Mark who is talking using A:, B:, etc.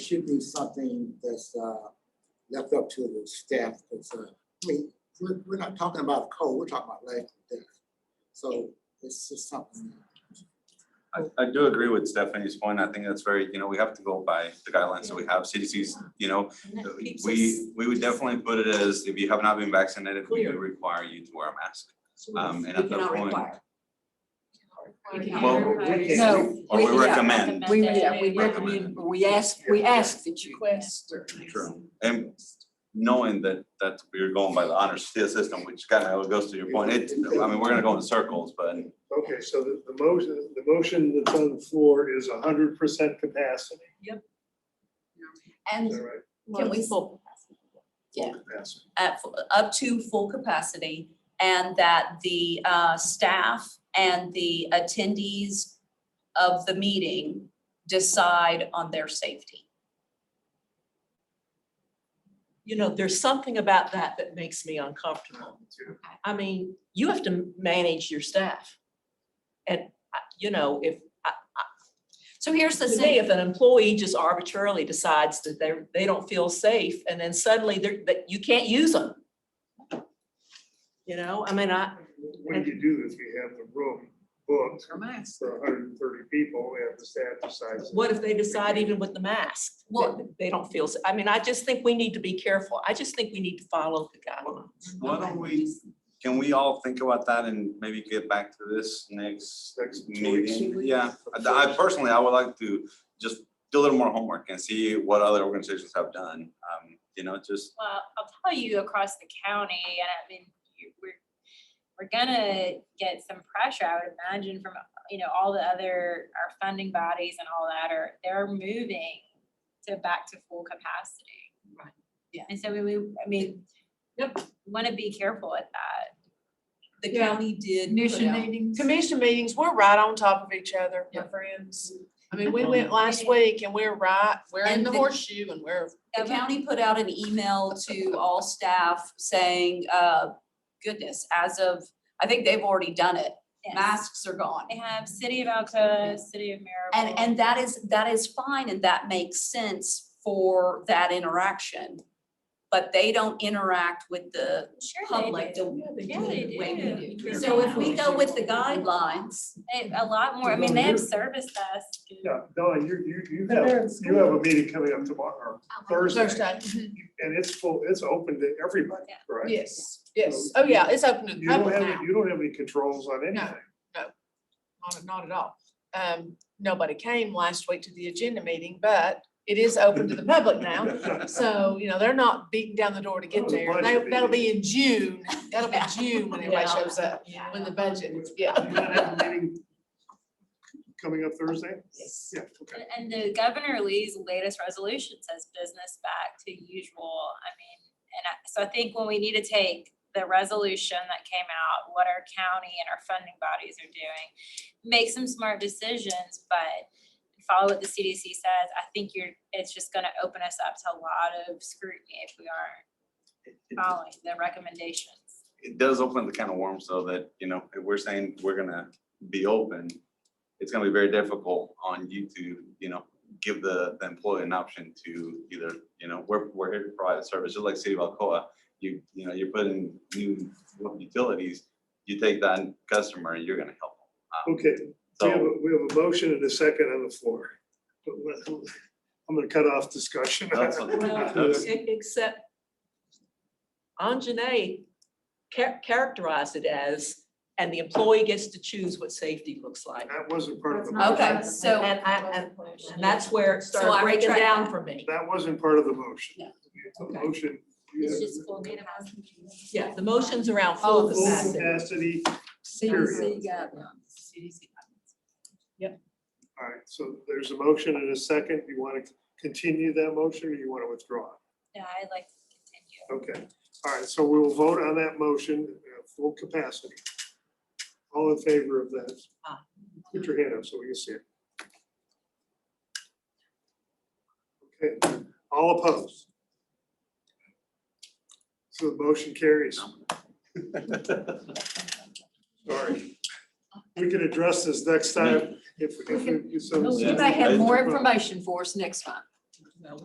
A: should be something that's uh, left up to the staff. It's, uh, I mean, we're, we're not talking about a code, we're talking about life and death. So it's just something.
B: I, I do agree with Stephanie's point. I think that's very, you know, we have to go by the guidelines that we have. CDC's, you know,
C: And that keeps us-
B: we, we would definitely put it as if you have not been vaccinated, we do require you to wear a mask.
C: so
B: Um, and
C: we
B: at that
C: cannot
B: point-
C: require. We cannot
B: Well,
C: require.
A: we can-
C: No,
B: Or
C: we-
B: we
C: yeah,
B: recommend.
C: We, yeah, we
B: Recommend.
C: recommend, we ask, we ask that you.
B: True. And knowing that, that we're going by the honor system, which kind of goes to your point, it, I mean, we're gonna go in circles, but
D: Okay, so the, the motion, the motion that's on the floor is hundred percent capacity, is
E: And
D: that right?
E: can we,
D: Full Capacity.
E: at fu- up to full capacity, and that the uh, staff and the attendees of the meeting decide on their safety.
F: you know, there's something about that that makes me uncomfortable. I mean, you have to manage your staff. And, I- you know, if,
E: So here's the
F: to me,
E: thing,
F: if an employee just arbitrarily decides that they're, they don't feel safe and then suddenly they're, that you can't use them. You know, I mean, I,
D: What do you do if you have the room booked for hundred and thirty people and the staff decides?
F: what if they decide even with the mask? that
E: Well-
F: They don't feel, sa- I mean, I just think we need to be careful. I just think we need to follow the guidelines.
B: why don't we, can we all think about that and maybe get back to this next
D: Next two weeks.
B: meeting? Yeah, I I personally, I would like to just do a little more homework and see what other organizations have done. Um, You know, just,
G: Well, I'll tell you across the county, and I mean, you- we're, we're gonna get some pressure, I would imagine, from, you know, all the other, our funding bodies and all that are, they're moving to back to full capacity.
F: Right.
E: Yeah.
G: And so we, we, I mean,
F: Yep.
G: wanna be careful at that.
E: the
H: Yeah.
E: county did put
H: Commission
E: out.
H: meetings. Commission meetings, we're right on top of each other, my friends. I mean, we went last week and we're right, we're in
E: And
H: the
E: the-
H: horseshoe and we're.
E: The county put out an email to all staff saying, uh, goodness, as of, I think they've already done it,
G: Yes.
E: masks are gone.
G: They have City of Alcoa, City of Maryville.
E: And, and that is, that is fine and that makes sense for that interaction. But they don't interact with the
G: Sure they
E: public
G: do.
E: the
G: Yeah,
E: way
G: they
E: we
G: do.
E: do. So if we go with the guidelines,
G: They- A lot more, I mean, they have serviced us.
D: Yeah, no, you, you, you have, you have a meeting coming up tomorrow, or Thursday. Mm-hmm.
H: Thursday, mhm.
D: And it's full, it's open to everybody,
G: Yeah.
D: right?
H: yes, yes. Oh, yeah, it's open to the
D: You don't
H: public
D: have,
H: now.
D: any- you don't have any controls on anything.
H: Not, not at all. Um, nobody came last week to the agenda meeting, but it is open to the public now. So, you know, they're not beating down the door to
D: Oh,
H: get
D: the
H: there.
D: budget
H: They- That'll be
D: meeting.
H: in June. That'll be June when everybody
F: Yeah.
H: shows up, when the budget, yeah.
D: You don't have a meeting Coming up Thursday?
H: Yes.
D: Yeah, okay.
G: And- And the Governor Lee's latest resolution says business back to usual. I mean, and I, so I think when we need to take the resolution that came out, what our county and our funding bodies are doing, make some smart decisions, but follow what the CDC says. I think you're, it's just gonna open us up to a lot of scrutiny if we aren't
B: it- it-
G: following the recommendations.
B: it does open the can of worms so that, you know, if we're saying we're gonna be open, it's gonna be very difficult on you to, you know, give the, the employee an option to either, you know, we're, we're here to provide a service, just like City of Alcoa. You, you know, you're putting new utilities, you take that customer, you're gonna help them. Um,
D: Okay, we have,
B: So,
D: a- we have a motion and a second on the floor. But let- I'm gonna cut off discussion.
B: that's what-
F: Well,
B: that's-
F: e- Except Anjanae cha- characterized it as, and the employee gets to choose what safety looks like.
D: That wasn't part of the.
E: Okay,
D: motion.
E: so-
F: And I, and- and that's where it
E: So I
F: started breaking
E: retract
F: down
E: that.
F: for me.
D: That wasn't part of the motion.
E: No.
D: The
F: Okay.
D: motion. you
G: It's
D: have
G: just full data.
F: Yeah, the motion's around
E: All
F: full
E: the
D: Full
E: facts.
F: capacity.
D: capacity.
E: CDC guidelines.
D: All right, so there's a motion and a second. You want to continue that motion or you want to withdraw? it?
G: Yeah, I'd like to continue.
D: Okay, all right, so we'll vote on that motion, uh, full capacity. All in favor of that?
F: Aye.
D: Put your hand up so we can see it. Okay, all opposed? So the motion carries. Sorry. We can address this next time if, if, we- so.
B: Yeah.
C: You may have more information for us next time.